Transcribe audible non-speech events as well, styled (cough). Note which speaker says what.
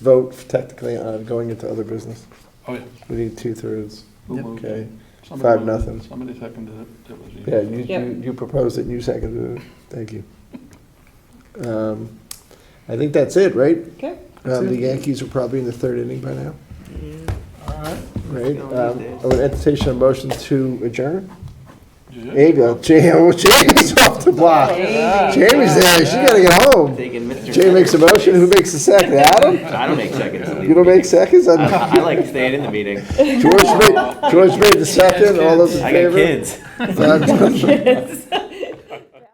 Speaker 1: vote technically on going into other business.
Speaker 2: Oh, yeah.
Speaker 1: We need two thirds.
Speaker 2: Who
Speaker 3: Yep.
Speaker 2: moved it?
Speaker 1: Okay.
Speaker 2: Somebody
Speaker 1: Five,
Speaker 2: moved it.
Speaker 1: nothing.
Speaker 2: Somebody seconded it. It was you.
Speaker 1: Yeah, you, you,
Speaker 4: Yep.
Speaker 1: you proposed it, you seconded it. Thank you. Um, I think that's it, right?
Speaker 4: Okay.
Speaker 1: Um, the Yankees are probably in the third inning by now, right?
Speaker 3: Still
Speaker 1: Um,
Speaker 3: these days.
Speaker 1: I would entertain a motion to adjourn.
Speaker 2: Did you-
Speaker 1: There you go. Jamie, oh, Jamie's (laughs) off the block. Jamie's there. She gotta get home.
Speaker 3: Taking Mr.
Speaker 1: Jamie makes a motion. Who makes the second? Adam?
Speaker 3: I don't make seconds. to leave
Speaker 1: You don't
Speaker 3: the
Speaker 1: make
Speaker 3: meeting.
Speaker 1: seconds?
Speaker 3: I,
Speaker 1: I'm-
Speaker 3: I like staying in the meeting.
Speaker 1: George made, George made the second. All those in
Speaker 3: I got
Speaker 1: favor?
Speaker 3: kids.
Speaker 1: Five,